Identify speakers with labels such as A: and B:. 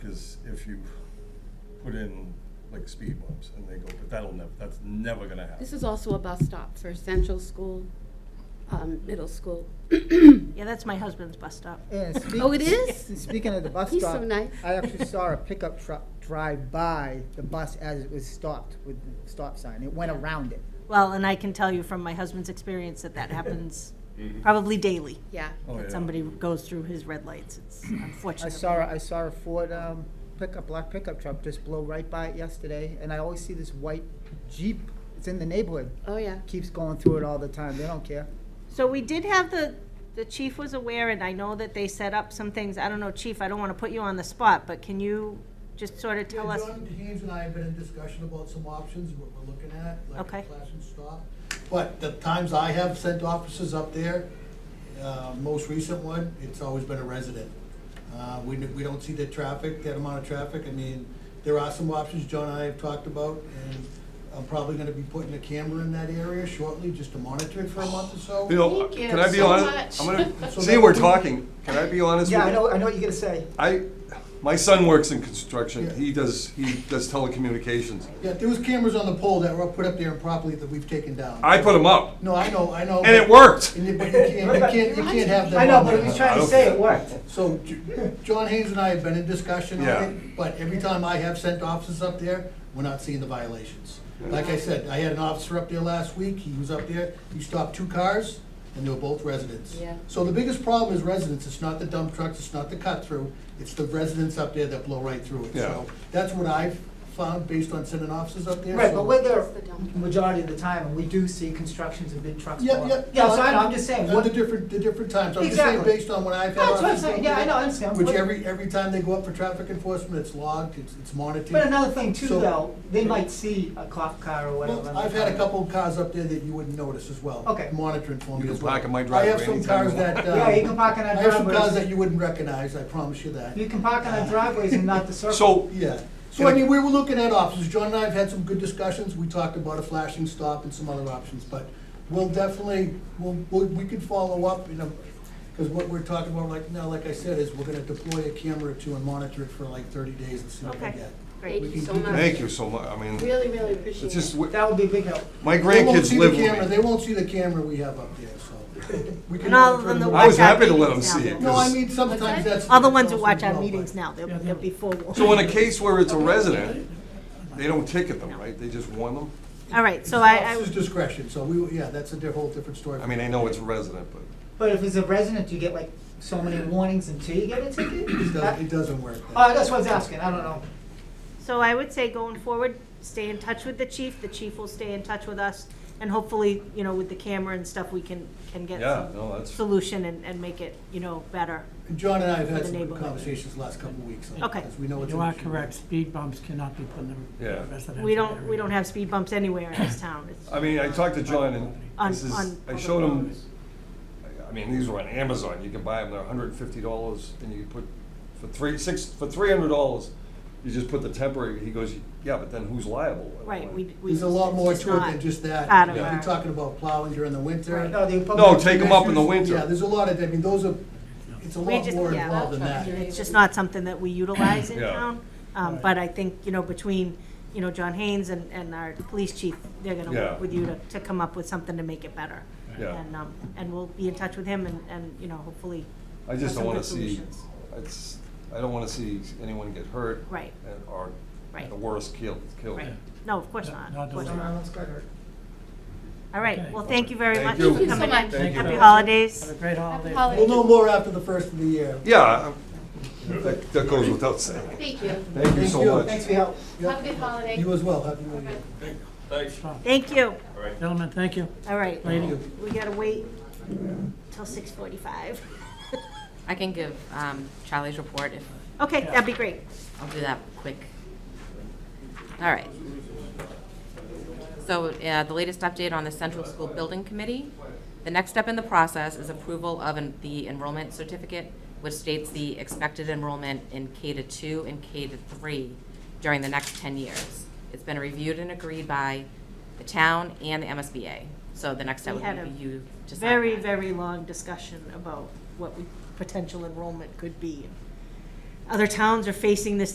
A: if you put in like speed bumps and they go, but that'll never, that's never gonna happen.
B: This is also a bus stop for Central School, um, Middle School.
C: Yeah, that's my husband's bus stop.
D: Yeah, speak-
B: Oh, it is?
D: Speaking of the bus
B: He's so
D: stop,
B: nice.
D: I actually saw a pickup truck drive by the bus as it was stopped with the stop sign. It went around it.
C: Well, and I can tell you from my husband's experience that that happens probably daily.
B: Yeah.
A: Mm-hmm. Oh, yeah.
C: That somebody goes through his red lights. It's
D: I
C: unfortunate.
D: saw, I saw a Ford um, pickup, black pickup truck just blow right by it yesterday, and I always see this white Jeep. It's in the neighborhood.
B: Oh, yeah.
D: Keeps going through it all the time. They don't care.
C: So we did have the, the chief was aware, and I know that they set up some things. I don't know, chief, I don't want to put you on the spot, but can you just sort of tell
E: Yeah,
C: us?
E: John Haynes and I have been in discussion about some options, what we're looking at, like
C: Okay.
E: a class and stop. But the times I have sent officers up there, uh, most recent one, it's always been a resident. Uh, We, we don't see the traffic, that amount of traffic. I mean, there are some options John and I have talked about, and I'm probably gonna be putting a camera in that area shortly, just to monitor it for a month or so.
A: You know,
B: Thank you
A: can I be
B: so
A: honest? I'm
B: much.
A: gonna,
E: So
A: see,
E: that
A: we're
E: would be-
A: talking, can I be honest with you?
D: Yeah, I know, I know what you're gonna say.
A: I, my son works in construction,
E: Yeah.
A: he does, he does telecommunications.
E: Yeah, there was cameras on the pole that were put up there improperly that we've taken down.
A: I put him up,
E: No, I know, I know.
A: and it worked.
E: And you- But you can't, you can't, you can't have them.
D: I know,
E: on
D: but
E: there.
D: he was trying
A: I
D: to
A: don't-
D: say it worked.
E: So, J- John Haynes and I have been in discussion on
A: Yeah.
E: it, but every time I have sent officers up there, we're not seeing the violations. Like I said, I had an officer up there last week, he was up there, he stopped two cars, and they were both residents.
B: Yeah.
E: So the biggest problem is residents, it's not the dump trucks, it's not the cut-through, it's the residents up there that blow right through it.
A: Yeah.
E: So That's what I've found based on sending officers up there.
D: Right,
E: so-
D: but we're there
B: It's the dump.
D: majority of the time, and we do see constructions and big trucks.
E: Yeah,
D: go
E: yeah.
D: up. Yeah, so I know, I'm just saying,
E: Uh,
D: what-
E: The different, the different times, I'm just saying
D: Exactly.
E: based on what I've had.
D: That's what I'm
E: officers
D: saying.
E: go
D: Yeah, I
E: through,
D: know, I understand.
E: Which
D: But-
E: every, every time they go up for traffic enforcement, it's logged, it's, it's monitored.
D: but another thing too,
E: So-
D: though, they might see a cop car or whatever.
E: Well, I've had a couple of cars up there that you wouldn't notice as well.
D: Okay.
E: Monitoring for
A: You
E: me
A: can
E: as well.
A: park in my
E: I have
A: driveway
E: some
A: anytime
E: cars
A: you want.
E: that, uh.
D: Yeah, you can park in our
E: I have some cars
D: driveways.
E: that you wouldn't recognize, I promise you that.
D: You can park on our driveways and not the circle.
A: So,
E: Yeah. So I mean, we were looking at options. John and I have had some good discussions. We talked about a flashing stop and some other options, but we'll definitely, we'll, we'll- we can follow up, you know, because what we're talking about like now, like I said, is we're gonna deploy a camera or two and monitor it for like thirty days and see what we
C: Okay.
E: get.
C: Great.
B: Thank you so
E: We can-
B: much.
A: thank you so much, I mean,
B: Really, really appreciate it.
A: it's just,
D: That would be a big help.
A: my
E: They won't
A: grandkids
E: see the
A: live
E: camera,
A: with me.
E: they won't see the camera we have up there, so. we can
C: And all of them
E: monitor
C: that
E: it.
A: I
C: watch
A: was
C: our
A: happy to let
C: meetings
A: them see
C: now,
A: it.
C: they'll-
E: No, I mean, sometimes that's.
C: All the ones who watch our
E: Well, but-
C: meetings now, they'll, they'll be forewarned.
A: So in a case where it's a resident, they don't ticket them, right? They just warn them?
C: All right, so I, I.
E: It's discretion, so we, yeah, that's a di- whole different story.
A: I mean, I know it's a resident, but.
D: But if it's a resident, you get like so many warnings until you get a ticket?
E: It does- it doesn't work. that
D: Uh, that's what I was asking, I don't know.
C: So I would say going forward, stay in touch with the chief, the chief will stay in touch with us, and hopefully, you know, with the camera and stuff, we can, can get
A: Yeah,
C: some
A: no, that's-
C: solution and, and make it, you know, better.
E: And John and I have
C: For
E: had
C: the
E: some good
C: neighborhood.
E: conversations the last couple of weeks. on it,
C: Okay.
E: Because we know it's.
F: You
E: an
F: are
E: issue.
F: correct, speed bumps cannot be put in the
A: Yeah.
F: residential area.
C: We don't, we don't have speed bumps anywhere in this town. It's-
A: I mean, I talked to John and
C: On-
A: this is,
C: on
A: I
C: public
A: showed him,
C: roads.
A: I- I mean, these were on Amazon, you can buy them, they're hundred and fifty dollars, and you put, for three, six, for three hundred dollars, you just put the temporary, he goes, yeah, but then who's liable?
C: Right, we, we.
E: There's a lot
C: it's
E: more
C: just
E: to it
C: not
E: than just that.
C: out of
E: You know,
C: our-
E: You're talking about plowing during the winter.
D: No, the public-
A: No, Oh, take 'em up in the winter.
E: Yeah, there's a lot of, I mean, those are, it's a
C: We
E: lot
C: just-
E: more
C: yeah.
E: involved than that.
C: It's just not something that we utilize in
A: Yeah.
C: town. Um, but I think, you know, between, you know, John Haynes and, and our police chief, they're gonna
A: Yeah.
C: work with you to, to come up with something to make it better.
A: Yeah.
C: And, um, and we'll be in touch with him and, and, you know, hopefully.
A: I just
C: have
A: don't
C: some
A: wanna
C: good
A: see,
C: solutions.
A: it's, I don't wanna see anyone get hurt.
C: Right.
A: and- Or,
C: Right.
A: the worst, killed, killed.
C: Right, no, of course not,
F: Not
C: of course
F: doing
C: not.
D: Someone else got hurt.
C: All right,
F: Okay.
C: well, thank you very
A: Thank
C: much
A: you.
C: for
A: Thank you so
C: coming in.
B: much.
A: Thank you.
C: Happy holidays.
F: Have a great holiday.
B: holiday.
E: We'll know more after the first of the year.
A: Yeah, I- that, that goes without saying.
B: Thank you.
A: Thank you
E: Thank
A: so
E: you.
A: much.
D: Thanks for your help.
B: Have a good holiday.
E: You as well, happy new year.
C: Thank you,
F: Gentlemen, thank you.
C: all right,
F: Thank you.
C: we gotta wait till six forty-five.
G: I can give um, Charlie's report if,
C: Okay, that'd be great.
G: I'll do that quick. All right. So uh, the latest update on the Central School Building Committee. The next step in the process is approval of an- the enrollment certificate, which states the expected enrollment in K to two and K to three during the next 10 years. It's been reviewed and agreed by the town and the MSBA. So the next step
C: We had
G: would
C: a
G: be you to sign
C: very,
G: that.
C: very long discussion about what we, potential enrollment could be. Other towns are facing this